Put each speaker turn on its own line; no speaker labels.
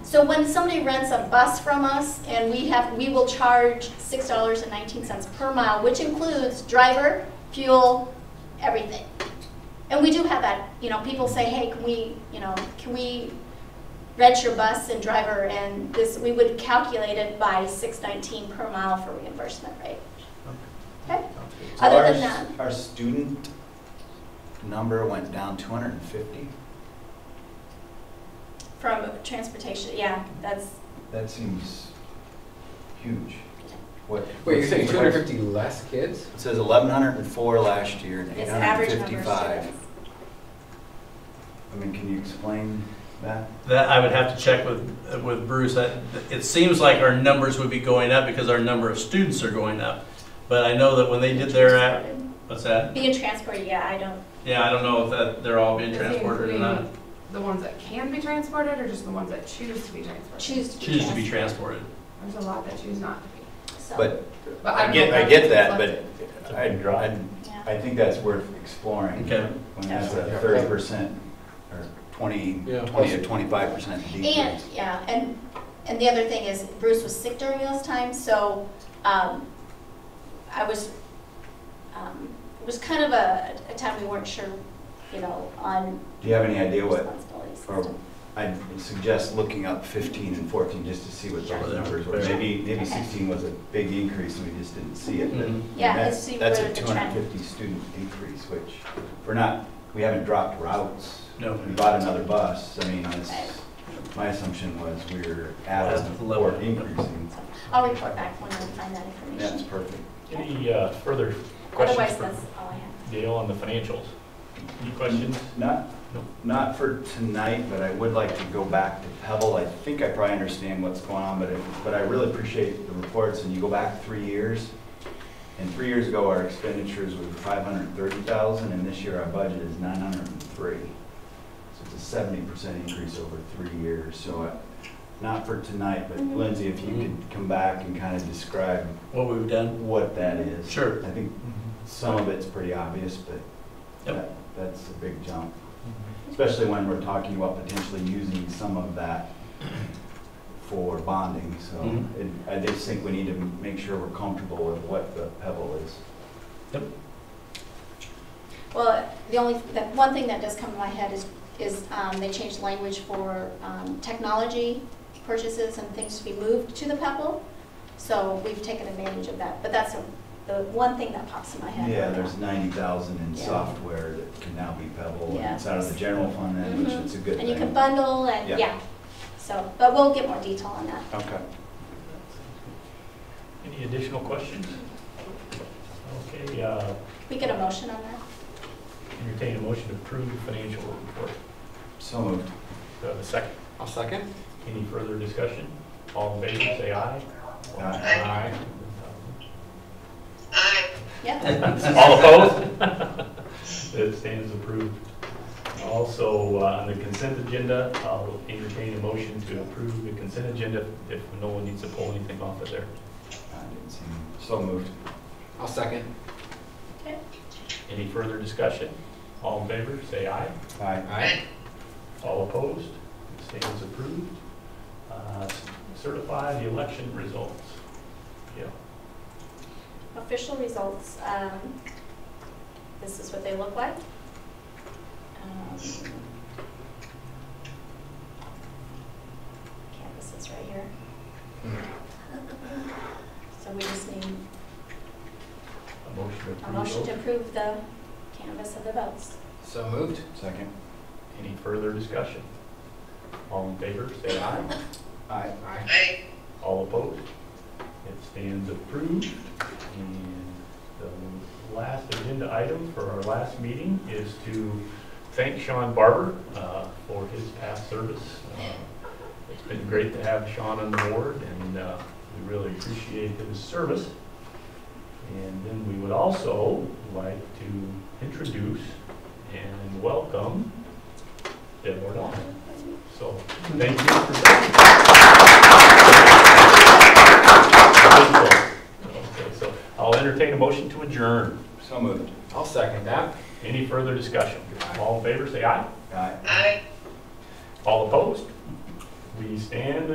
So when somebody rents a bus from us and we have, we will charge six dollars and nineteen cents per mile, which includes driver, fuel, everything. And we do have that, you know, people say, hey, can we, you know, can we rent your bus and driver and this, we would calculate it by six nineteen per mile for reimbursement rate. Okay?
So
Other
our
than
s-
that-
Our student number went down two hundred and fifty.
From transportation, yeah, that's,
That seems huge. What?
Wait, you're saying
what's-
250 less kids?
It says eleven hundred and four last year and eight
it's
hundred
average
and
number of
fifty-five.
students.
I mean, can you explain that?
That I would have to check with, with Bruce. I- It seems like our numbers would be going up because our number of students are going up. But I know that when they did their, uh, app- what's that?
Being transported, yeah, I don't,
Yeah, I don't know if that, they're all being
Is it
transported or not.
including The ones that can be transported or just the ones that choose to be transported?
choose to be
Choose to be transported.
There's a lot that choose not to be.
so,
But
But
I
don't
get,
know
I
if
get
that's
that, but
reflected.
I, I,
yeah.
I think that's worth exploring.
Okay.
When that's a
Yeah.
thirty percent or twenty,
Yeah.
twenty or twenty-five percent decrease.
And, yeah, and, and the other thing is Bruce was sick during those times, so, um, I was, um, it was kind of a, a time we weren't sure, you know, on
Do you have any idea what,
responsibilities.
or I'd suggest looking up fifteen and fourteen just to see what
Sure.
those numbers were.
Sure.
Maybe, maybe
Okay.
sixteen was a big increase and we just didn't see it, but.
Mhm.
Yeah,
that's-
let's see
That's
where
a
the
two
trend-
hundred and fifty student decrease, which we're not, we haven't dropped routes.
Mm-hmm. No.
We bought another bus. I mean, it's,
Right.
my assumption was we were
That's
at
the level.
or increasing.
So, I'll report back when I find that
That's
information.
perfect.
Any uh, further questions
Otherwise,
for
that's all I have.
Dale on the financials? Any questions?
Not,
No.
not for tonight, but I would like to go back to Pebble. I think I probably understand what's going on, but, it- but I really appreciate the reports, and you go back three years. And three years ago, our expenditures were five hundred and thirty thousand, and this year our budget is nine hundred and three. So it's a seventy percent increase over three years, so I, not for tonight, but
Mhm.
Lindsay, if you could come back and kind of describe
What we've done.
what that is.
Sure.
I think
Mm-hmm.
some of it's pretty obvious, but
Yep.
that- that's a big jump. Especially when we're talking about potentially using some of that for bonding, so
Mhm.
it- I just think we need to make sure we're comfortable with what the pebble is.
Well, the only, that, one thing that does come to my head is, is, um, they changed language for, um, technology purchases and things to be moved to the Pebble. So we've taken advantage of that, but that's the one thing that pops in my head.
Yeah, there's ninety thousand in
Yeah.
software that can now be pebble, and
Yeah.
it's out of the general fund, then, which
Mhm.
is a good thing.
And you can bundle and,
Yeah.
yeah, so, but we'll get more detail on that.
Okay.
Any additional questions? Okay, uh,
We get a motion on that?
entertain a motion to approve the financial report.
So moved.
Do I have a second?
I'll second.
Any further discussion? All in favor, say aye.
Aye.
Yeah,
All opposed? That stands approved. Also, uh, on the consent agenda, I'll entertain a motion to approve the consent agenda if no one needs to pull anything off of there.
I didn't see him. So moved.
I'll second.
Any further discussion? All in favor, say aye.
Aye.
Aye.
All opposed? Stands approved. Uh, Certify the election results. Yeah.
official results, um, this is what they look like. Um, Canvas is right here. So we just need
A motion to approve.
a motion to
those.
approve the canvas of the votes.
So moved.
Second.
Any further discussion? All in favor, say aye.
Aye.
Aye.
All opposed? It stands approved. And the last agenda item for our last meeting is to thank Sean Barber uh, for his past service. Uh, It's been great to have Sean on the board, and uh, we really appreciate his service. And then we would also like to introduce and welcome Deb Ordon. So, thank you for Okay, so I'll entertain a motion to adjourn.
So moved.
I'll second that.
Any further discussion? All in favor, say aye.
Aye.
All opposed? We we stand